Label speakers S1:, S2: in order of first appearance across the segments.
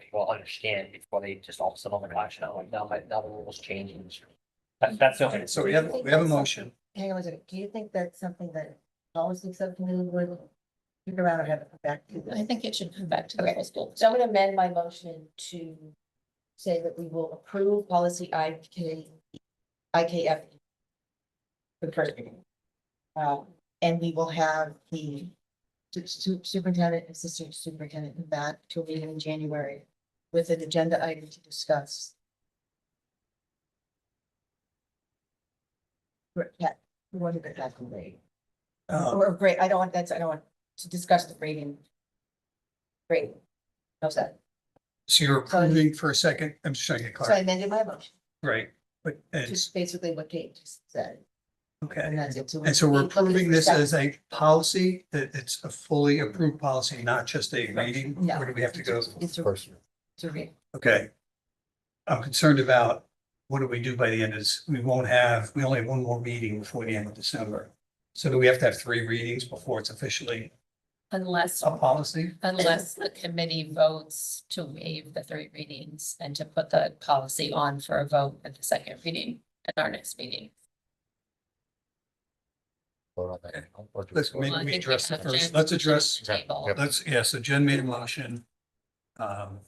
S1: people understand before they just all of a sudden, oh my gosh, now, now my, now the rules changing. That, that's the only.
S2: So we have, we have a motion.
S3: Hang on a second, do you think that's something that always looks up to me would figure out or have it come back to?
S4: I
S3: this?
S4: think it should come back to the
S3: Okay.
S4: full school.
S3: So I'm gonna amend my motion to say that we will approve policy IK, IKF. For the first reading. Uh, and we will have the su- su- superintendent and assistant superintendent come back to a meeting in January with an agenda item to discuss. Right, yeah, what did it have to be?
S2: Uh,
S3: Or great, I don't want, that's, I don't want to discuss the grading. Great. How's that?
S2: so you're approving for a second, I'm just trying to get
S3: So I
S2: clarity,
S3: amended my motion,
S2: right? But, and,
S3: just basically what Kate just said, and
S2: okay.
S3: that's it.
S2: And so we're
S3: looking for
S2: approving this
S3: stuff.
S2: as a policy, that it's a fully approved policy, not just a reading?
S3: No.
S2: Where do we have to go?
S3: It's a, it's a re-
S2: Okay. I'm concerned about what do we do by the end of this? We won't have, we only have one more meeting before the end of December. So do we have to have three readings before it's officially
S4: Unless,
S2: a policy?
S4: unless the committee votes to waive the three readings and to put the policy on for a vote at the second reading at our next meeting.
S2: Let's
S1: Let's
S2: maybe
S4: Well, I
S2: we
S4: think
S2: address the
S4: have Jen's
S2: first, let's address,
S4: motion on the table.
S1: Yep.
S2: let's, yeah, so Jen made a motion. Um,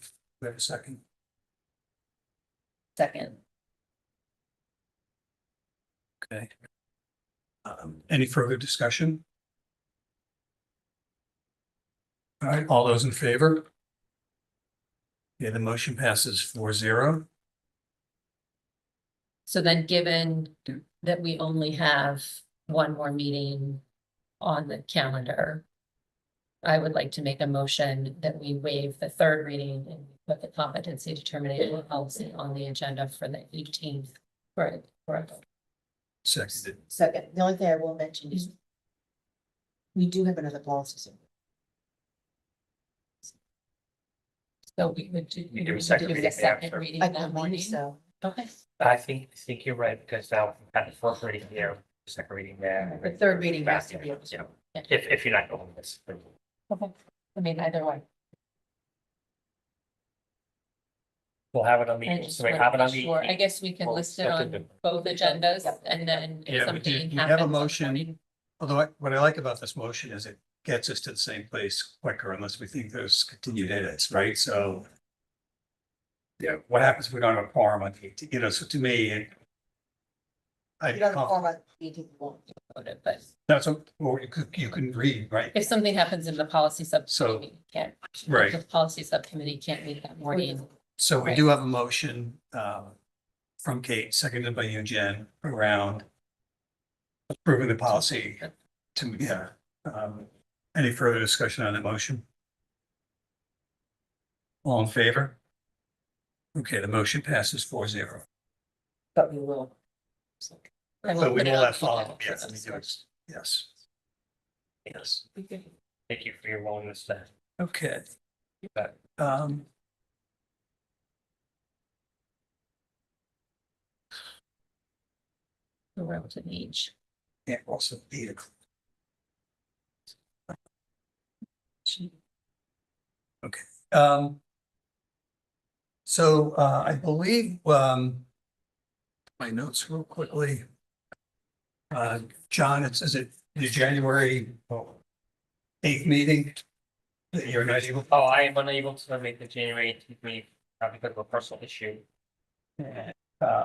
S2: we have a second.
S4: Second,
S2: Okay. Um, any further discussion? All right, all those in favor? Yeah, the motion passes four zero.
S4: so then given that we only have one more meeting on the calendar, I would like to make a motion that we waive the third reading and put the competency determination policy on the agenda for the eighteenth. Right, correct.
S2: Seconded.
S3: Second, the only thing I will mention is we do have another policy. so-
S4: So we would do.
S1: You do a
S4: we would
S1: second
S4: do
S1: reading
S4: the second
S1: after.
S4: reading
S3: I
S4: that
S3: believe
S4: morning.
S3: so.
S4: Okay,
S1: I think, I think you're right, because now we've had the first reading here, second reading there.
S3: The third reading has to be-
S1: Yeah, if, if you're not going this.
S4: okay. I mean, either way.
S1: We'll have it on
S4: I
S1: the,
S4: just
S1: so we
S4: wanna
S1: have it on
S4: make sure. I
S1: the,
S4: guess we can
S1: Well,
S4: list it
S1: second
S4: on both agendas
S3: Yep.
S4: and then
S2: Yeah, we
S4: if something
S2: did- we
S4: happens.
S2: have a
S4: on the
S2: motion.
S4: morning-
S2: Although I- what I like about this motion is it gets us to the same place quicker unless we think there's continued edits, right? So. Yeah, what happens if we don't have a quorum on the, 18th? you know, so to me. it-
S3: You don't have a
S2: I,
S3: form on meeting one.
S4: voted, But
S2: that's, what- or you could, you can read, right?
S4: if something happens in the policy
S2: So-
S4: subcommittee, we can't.
S2: Right.
S4: The policy subcommittee can't meet that morning.
S2: So we
S4: Right.
S2: do have a motion um from Kate, seconded by you, Jen, around approving the policy to, yeah. Um, any further discussion on that motion? All in favor? Okay, the motion passes four zero.
S3: But we will.
S4: I
S2: So we
S4: put it
S2: will
S4: on
S2: have
S4: the
S2: follow,
S4: agenda for
S2: yes, let me
S4: this
S2: do
S4: one.
S2: it. Yes. Yes,
S1: thank you for your willingness to.
S2: okay.
S1: bet.
S2: Um.
S4: The relative age.
S2: Yeah, also vehicle. Okay, um. So, uh, I believe, um. My notes real quickly. Uh, John, it's, is it the January oh, eighth meeting? That you're not able,
S1: Oh, I am unable to make the January eighteenth meeting, uh, because of a personal issue.
S2: uh,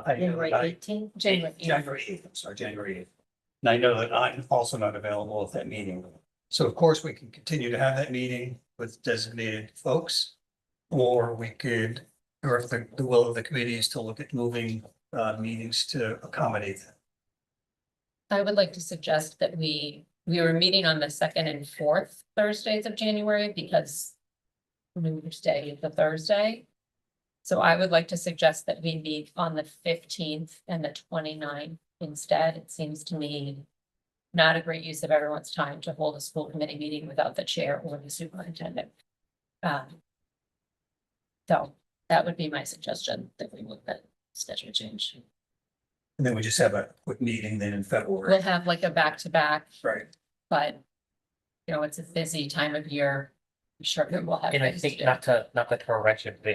S2: I know
S3: January
S2: that I.
S3: eighteen,
S4: January.
S2: January eighth, I'm sorry, January eighth. And I know that I'm also not available at that meeting. So of course, we can continue to have that meeting with designated folks. Or we could, or if the, the will of the committee is to look at moving, uh, meetings to accommodate. that.
S4: I would like to suggest that we, we were meeting on the second and fourth Thursdays of January because New Year's Day is the Thursday. So I would like to suggest that we meet on the fifteenth and the 29th instead. It seems to me not a great use of everyone's time to hold a school committee meeting without the chair or the superintendent. Um, So that would be my suggestion that we would then schedule change.
S2: And then we just have a quick meeting then in February,
S4: We'll have like a back-to-back
S2: right?
S4: but you know, it's a busy time of year. I'm sure people have.
S1: And I
S4: things to
S1: think
S4: do.
S1: not to, not to correct you, but